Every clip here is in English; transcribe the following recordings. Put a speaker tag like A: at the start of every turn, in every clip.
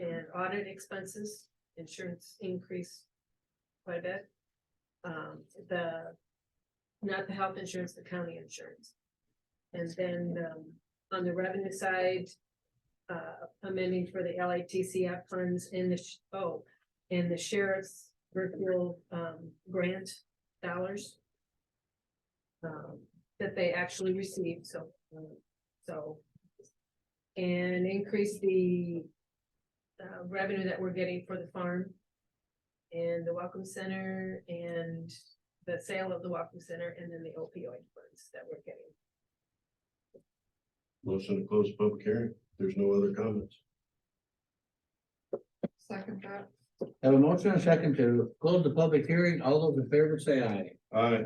A: our audit expenses, insurance increased quite a bit. Um, the, not the health insurance, the county insurance. And then, um, on the revenue side, uh, amending for the LITCF funds in the, sh- oh, and the sheriff's virtual, um, grant dollars. Um, that they actually received, so, um, so. And increase the uh, revenue that we're getting for the farm. And the welcome center and the sale of the welcome center and then the opioid funds that we're getting.
B: Motion to close public hearing. There's no other comments.
A: Second that.
C: Have a motion and a second to close the public hearing. All those in favor say aye.
B: Aye.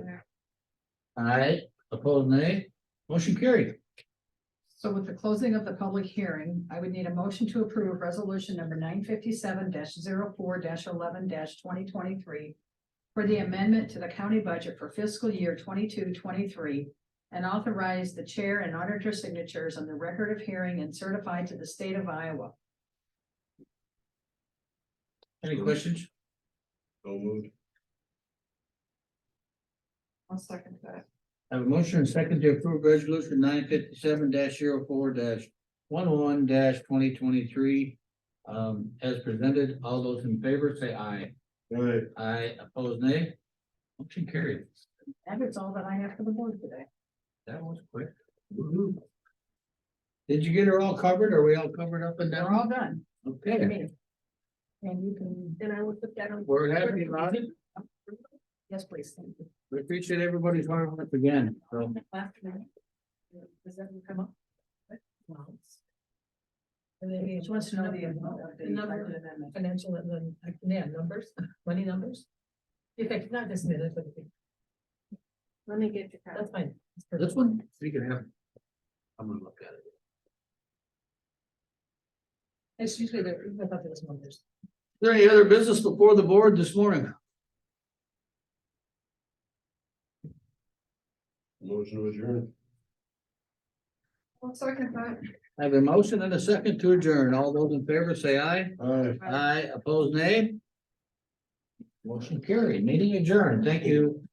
C: Aye, opposed nay. Motion carried.
D: So with the closing of the public hearing, I would need a motion to approve resolution number nine fifty-seven 4 eleven twenty twenty-three for the amendment to the county budget for fiscal year 22-23, and authorize the chair and auditor signatures on the record of hearing and certify to the state of Iowa.
C: Any questions?
B: So moved.
D: I'll second that.
C: Have a motion and a second to approve resolution nine fifty-seven 4 one-one twenty twenty-three. Um, as presented, all those in favor say aye.
B: Aye.
C: Aye, opposed nay. Motion carried.
D: That is all that I have for the board today.
C: That was quick. Did you get her all covered? Are we all covered up and
D: They're
C: down?
D: all done. I
C: Okay,
D: mean, And you can,
A: And I will put that on.
C: we're happy about it.
D: yes, please. Thank you.
C: We appreciate everybody's hard work again, so.
D: Last minute. Does that ever come up? No. And then he wants to know the amount of the
A: Number.
D: effective amendment. Financial and then, yeah, numbers, money numbers. Effect, not this minute, but
A: Let me get your.
D: that's fine.
C: This one, we can have. I'm gonna look at it.
D: It's usually the, I thought there was numbers.
C: Is there any other business before the board this morning?
B: Motion to adjourn.
D: One second, but.
C: I have a motion and a second to adjourn. All those in favor say aye.
B: Aye.
C: Aye, opposed nay. Motion carried, meeting adjourned. Thank you.